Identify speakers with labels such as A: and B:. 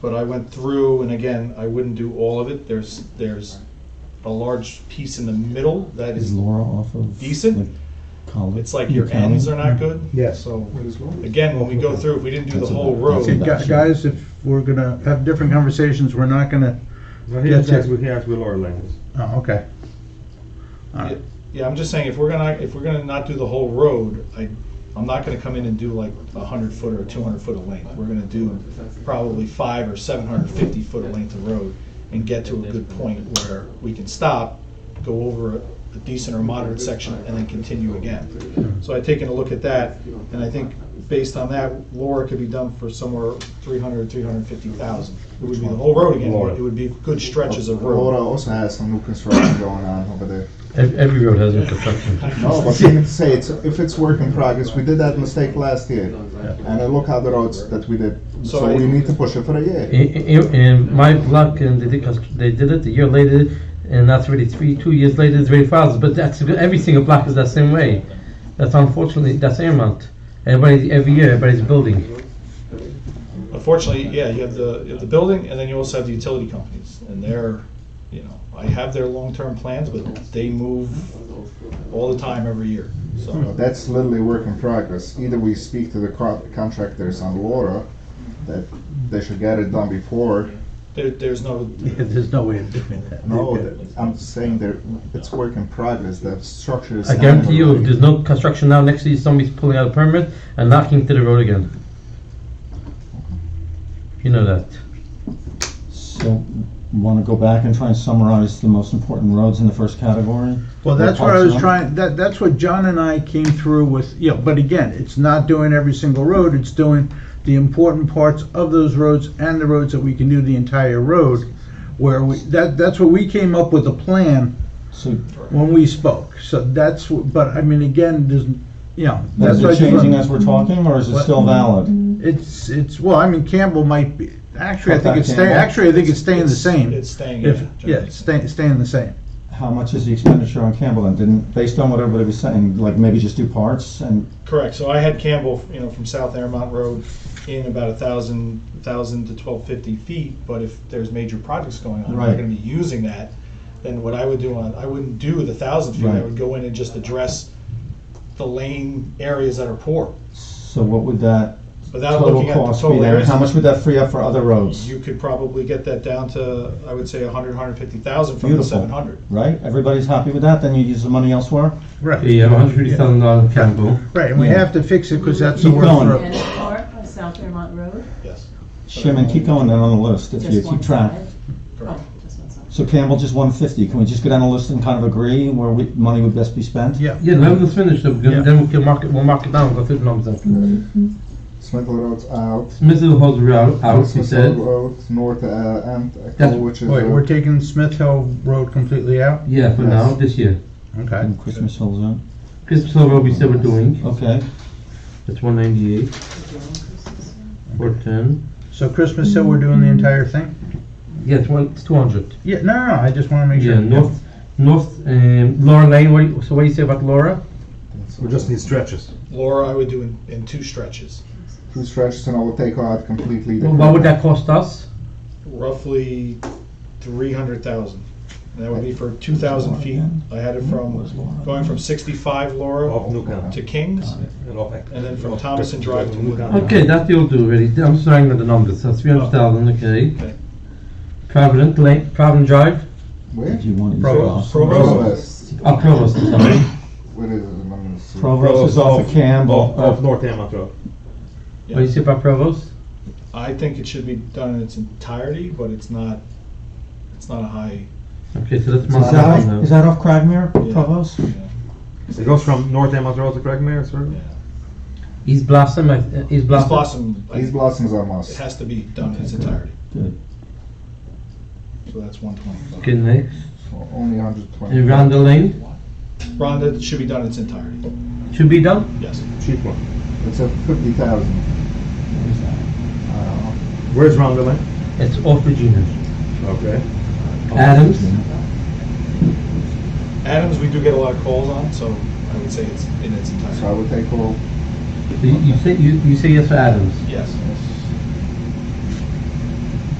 A: But I went through, and again, I wouldn't do all of it. There's, there's a large piece in the middle that
B: Is
A: is,
B: Laura off of?
A: Decent.
B: like, College?
A: it's like your ends are not good.
C: Yes.
A: So,
D: What is wrong?
A: again, when we go through, if we didn't do the
B: That's
A: whole
B: about- that's
A: road,
C: See,
B: about-
C: gu- guys, if we're gonna have different conversations, we're not gonna,
D: No, he has
C: That's
D: asked,
C: it.
D: he asked with Laura Langus.
C: oh, okay. All right.
A: yeah, I'm just saying, if we're gonna, if we're gonna not do the whole road, I, I'm not gonna come in and do like a hundred foot or a two hundred foot of length. We're gonna do probably five or seven hundred fifty foot of length of road and get to a good point where we can stop, go over a a decent or moderate section, and then continue again. So I've taken a look at that, and I think based on that, Laura could be done for somewhere 300, 350,000. It would be the whole road again, but it would be good stretches of
E: Laura
A: road.
E: also has Uh, some new construction going on over there.
F: Ev- Every road has new construction.
E: No, but you can say it's, if it's work in progress, we did that mistake last year. And I look how the roads that we did.
A: So
E: So
A: I-
E: we need to push it for a year.
B: Eh?
F: I- I- And my luck, and they did, constr- they did it a year later, and that's already three, two years later, it's very fast. But that's every single block is that same way. That's unfortunately that's Airmont. Everybody every year, everybody's building.
A: Unfortunately, yeah, you have the, you have the building, and then you also have the utility companies, and they're, you know, I have their long-term plans, but they move all the time every year, so.
B: Hmm.
E: That's literally work in progress. Either we speak to the co- contractors on Laura, that they should get it done before.
A: There, there's no,
C: Yeah, There's no way of doing that.
E: No, that- I'm saying that it's work in progress, the structure is.
F: I guarantee you, if there's no construction now next to you, somebody's pulling out a permit and knocking to the road again. You know that.
B: So, want to go back and try and summarize the most important roads in the first category?
C: Well, that's
B: Or
C: what
B: parts
C: I was
B: of them?
C: trying, that, that's what John and I came through with, yeah, but again, it's not doing every single road, it's doing the important parts of those roads and the roads that we can do the entire road, where we, that, that's what we came up with a plan
B: So,
C: when we spoke, so that's, wh- but I mean, again, there's, you know, that's
B: is
C: why. I
B: it
C: just want-
B: changing as we're talking, or is it
C: What?
B: still valid?
C: It's, it's, well, I mean, Campbell might be, actually, I
B: Cut
C: think
B: back
C: it's staying,
B: Campbell?
C: actually, I think it's staying the same.
A: It's staying, yeah.
C: If- Yeah, it's staying, staying the same.
B: How much is the expenditure on Campbell then? Didn't, based on what everybody was saying, like maybe just do parts and
A: Correct, so I had Campbell, you know, from South Airmont Road in about a thousand, thousand to twelve fifty feet, but if there's major projects going on, we're
B: Right.
A: gonna be using that, then what I would do on, I wouldn't do the thousand feet, I
B: Right.
A: would go in and just address the lane areas that are poor,
B: so what would that
A: without
B: total
A: looking at the
B: cost be
A: total
B: there?
A: areas.
B: How much would that free up for other roads?
A: You could probably get that down to, I would say, a hundred, hundred fifty thousand from the
B: Beautiful.
A: seven hundred.
B: Right? Everybody's happy with that? Then you use the money elsewhere?
C: Right.
F: Yeah, $150,000 Campbell.
C: Right, and we
B: Yeah.
C: have to fix it, because that's the
B: Keep
C: worst
B: going.
C: road.
G: Dennis Park, South Fairmont Road.
A: Yes,
B: Shimon, keep going then on the list if you
G: Just one
B: keep track.
G: side.
A: correct.
G: Oh, just one side.
B: So Campbell just one fifty. Can we just go down the list and kind of agree where we, money would best be spent?
C: Yeah.
F: Yeah, let us finish them.
C: Yeah.
F: Then we can mark it. We'll mark it down. Go through the numbers. Then.
E: Smithville Road's out.
F: Smithville Hall's out. Out. He
E: Smithville
F: said.
E: Road, North uh, End, uh,
F: That's-
E: which is.
C: Wait,
E: uh,
C: we're taking Smith Hill Road completely out?
F: Yeah, for now, this year.
C: Okay.
B: And Christmas Hill Zone.
F: Christmas Hill Road, we said we're doing.
B: Okay.
F: That's 198, 410.
C: So Christmas Hill, we're doing the entire thing?
F: Yeah, it's, one, it's 200.
C: Yeah, no, no, no, I just want to make sure.
F: Yeah, North, North, um, Laura Lane. What, you- so, what do you say about Laura?
D: We just need stretches.
A: Laura, I would do in, in two stretches,
E: Two stretches and I will take out completely. the
F: Well, what would
E: curb.
F: that cost us?
A: roughly three hundred thousand. And that would be for two thousand feet. I had it from, going from sixty-five
B: Oh,
D: Off
A: Laura
D: Newcastle.
A: to Kings,
D: And off Eck.
A: and then from
D: Off
A: Thomason Drive to
D: Newcastle.
A: Woodland.
F: Okay, that you'll do already. I'm starting with the numbers. That's 300,000. Okay.
A: Okay.
F: Provident Lane, Provident Drive.
E: Where?
B: If you want to use
C: Provost.
B: Provost.
E: Provost.
F: Oh, Provost. I'm Sorry.
E: Where is it? I'm gonna see.
B: Provost is off of Campbell.
D: Off, off North Hammond Road.
F: What do you say about Provost?
A: I think it should be done in its entirety, but it's not, it's not a high,
F: Okay, so that's
B: Is
F: marked
B: that
F: down
B: off, is
F: now.
B: that off Cragmere,
A: Yeah.
B: Provost?
D: It goes from North Hammond Road to Craigmere, sir?
A: yeah.
F: East Blossom. I- uh, East
A: East
F: Blossom.
A: Blossom, I-
E: These blossoms are
A: it
E: must.
A: has to be done in its entirety.
B: Good.
A: So that's one twenty-five.
F: Okay, next.
E: Only 120.
F: And Rhonda Lane.
A: Rhonda, it should be done in its entirety,
F: Should be done.
A: yes.
D: Cheap one.
E: It's a 50,000. Uh,
D: Where's Round Lane?
F: It's off Virginia.
D: Okay.
F: Adams.
A: Adams, we do get a lot of calls on, so I would say it's in its
E: So I
A: entirety,
E: would take all.
F: You, you say you, you say yes for Adams.
A: yes.